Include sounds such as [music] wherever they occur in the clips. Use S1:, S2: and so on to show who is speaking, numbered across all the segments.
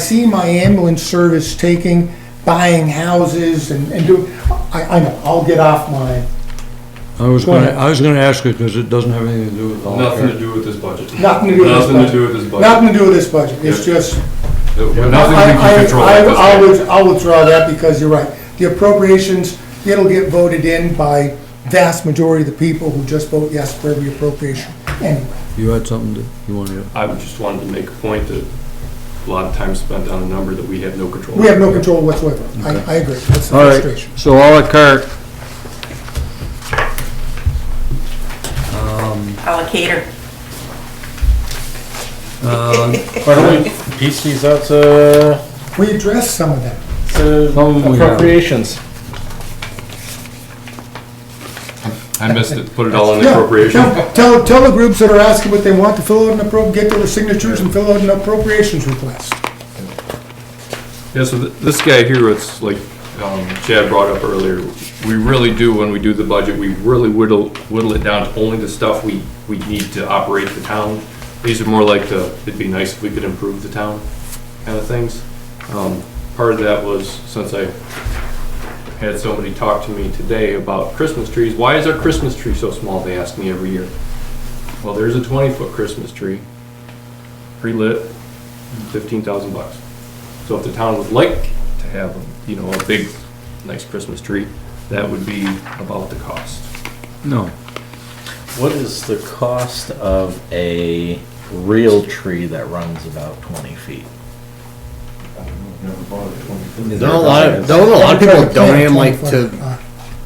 S1: see my ambulance service taking, buying houses and, and do, I, I know, I'll get off my,
S2: I was
S1: Go
S2: gonna,
S1: ahead.
S2: I was gonna ask it because it doesn't have anything to do with law
S3: Nothing to
S2: care.
S3: do with this budget.
S1: Nothing to do with this
S3: Nothing to
S1: budget.
S3: do with this budget.
S1: nothing to do with this budget, it's just.
S3: Nothing we
S1: I- I-
S3: can control
S1: I-
S3: at this
S1: I'll
S3: point.
S1: with- I'll withdraw that because you're right. The appropriations, it'll get voted in by vast majority of the people who just vote yes for every appropriation anyway.
S2: You had something that you wanted to,
S3: I would just wanted to make a point that a lot of time spent on a number that we have no control.
S1: We have no control whatsoever. I, I agree, that's the
S2: all right,
S1: frustration.
S2: so all la carte,
S4: allocator.
S5: Why don't we piece these out to,
S1: We addressed some of that.
S5: to
S2: Some we have.
S5: appropriations?
S3: I missed it, put it all in
S1: Yeah,
S3: appropriation.
S1: tell- Tell, tell the groups that are asking what they want to fill out an appro, get their signatures and fill out an appropriations request.
S3: Yeah, so th- this guy here, it's like um, Chad brought up earlier, we really do, when we do the budget, we really whittle, whittle it down to only the stuff we, we need to operate the town. These are more like the, it'd be nice if we could improve the town kind of things. Um, Part of that was, since I had somebody talk to me today about Christmas trees, why is our Christmas tree so small, they ask me every year. Well, there's a twenty-foot Christmas tree, pre-lit, fifteen thousand bucks. So if the town would like to have, you know, a big, nice Christmas tree, that would be about the cost.
S2: no,
S6: What is the cost of a real tree that runs about twenty feet?
S7: Don't a lot of, don't a lot of people donate them like to
S1: Uh,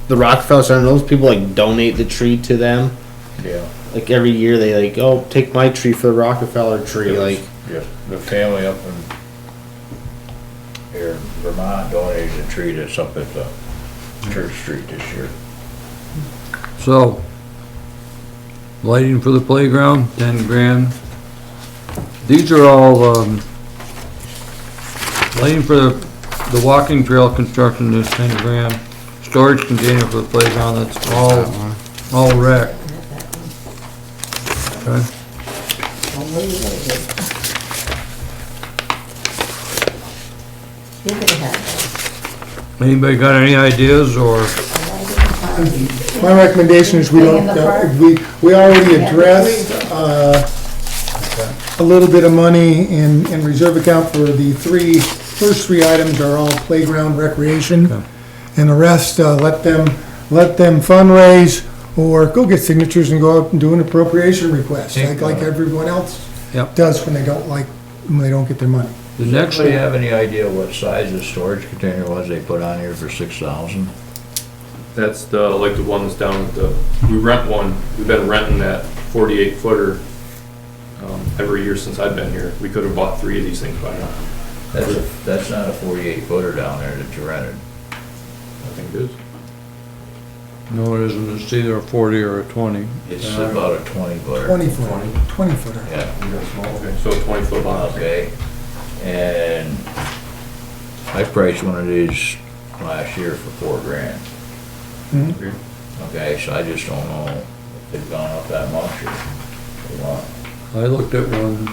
S7: the Rockefeller Center? Those people like donate the tree to them.
S5: Yeah,
S7: Like every year, they like, oh, take my tree for the Rockefeller tree. Like,
S5: yeah. The family up in here in Vermont donated a tree that's up at the Church Street this year.
S2: so. Lighting for the playground, ten grand. These are all, um, lighting for the, the walking trail construction is ten grand. Storage container for the playground, that's all, all rec. Okay,
S4: You're gonna have
S2: anybody got any ideas or?
S1: My recommendation is we don't, uh, we, we already addressed, uh, a little bit of money in, in reserve account for the three, first three items are all playground recreation.
S2: Okay.
S1: And the rest, uh, let them, let them fundraise or go get signatures and go out and do an appropriation request, like, like everyone else
S2: Yep.
S1: does when they don't like, when they don't get their money.
S2: The
S5: Does
S2: next
S5: anybody
S2: one,
S5: have any idea what size the storage container was they put on here for six thousand?
S3: That's the, like the ones down at the, we rent one, we've been renting that forty-eight footer um, every year since I've been here. We could have bought three of these things by now.
S5: That's, a- that's not a forty-eight footer down there that you rented.
S3: I think it is.
S2: no, it isn't, it's either a forty or a twenty.
S5: It's about a twenty footer.
S1: Twenty footer, twenty footer.
S5: Yeah.
S3: Okay, So twenty foot box.
S5: Okay, and I priced one of these last year for four grand.
S1: Mhm.
S5: Okay, so I just don't know if they've gone up that much or what.
S2: I looked at one.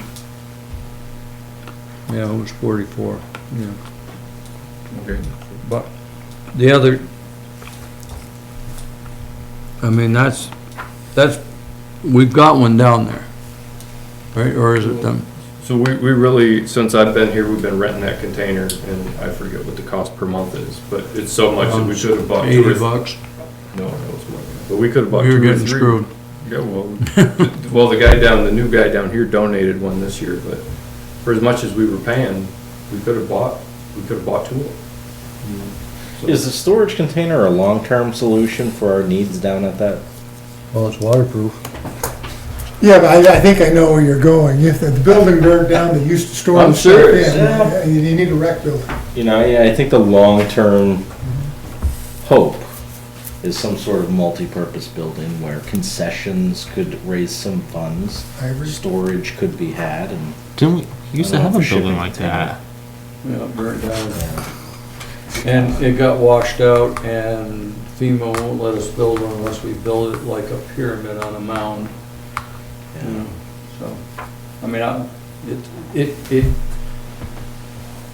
S2: Yeah, it was forty-four, yeah,
S3: Okay.
S2: but the other, I mean, that's, that's, we've got one down there. Right, or is it them?
S3: So we, we really, since I've been here, we've been renting that container and I forget what the cost per month is, but it's so much that we should have bought. two or
S2: Um, Eighty
S3: th-
S2: bucks,
S3: No, it was more than that. But we could
S2: we
S3: have bought two or
S2: were
S3: three.
S2: getting screwed.
S3: Yeah, well, [laughs] well, the guy down, the new guy down here donated one this year, but for as much as we were paying, we could have bought, we could have bought two of them.
S6: Is the storage container a long-term solution for our needs down at that?
S2: Well, it's waterproof.
S1: Yeah, but I, I think I know where you're going. If the building burned down, they used to store the
S6: I'm
S1: stuff in.
S6: serious, yeah.
S1: You you need a rec building.
S6: You know, yeah, I think the long-term hope is some sort of multi-purpose building where concessions could raise some funds.
S1: I agree.
S6: Storage could be had and.
S8: Didn't we used to
S6: I don't
S8: have
S6: know
S8: a
S6: if shipping
S8: building like
S6: container-
S8: that?
S2: Yeah, it burnt down. And it got washed out and FEMA won't let us build one unless we build it like a pyramid on a mound. You know, so, I mean, I, it, it, it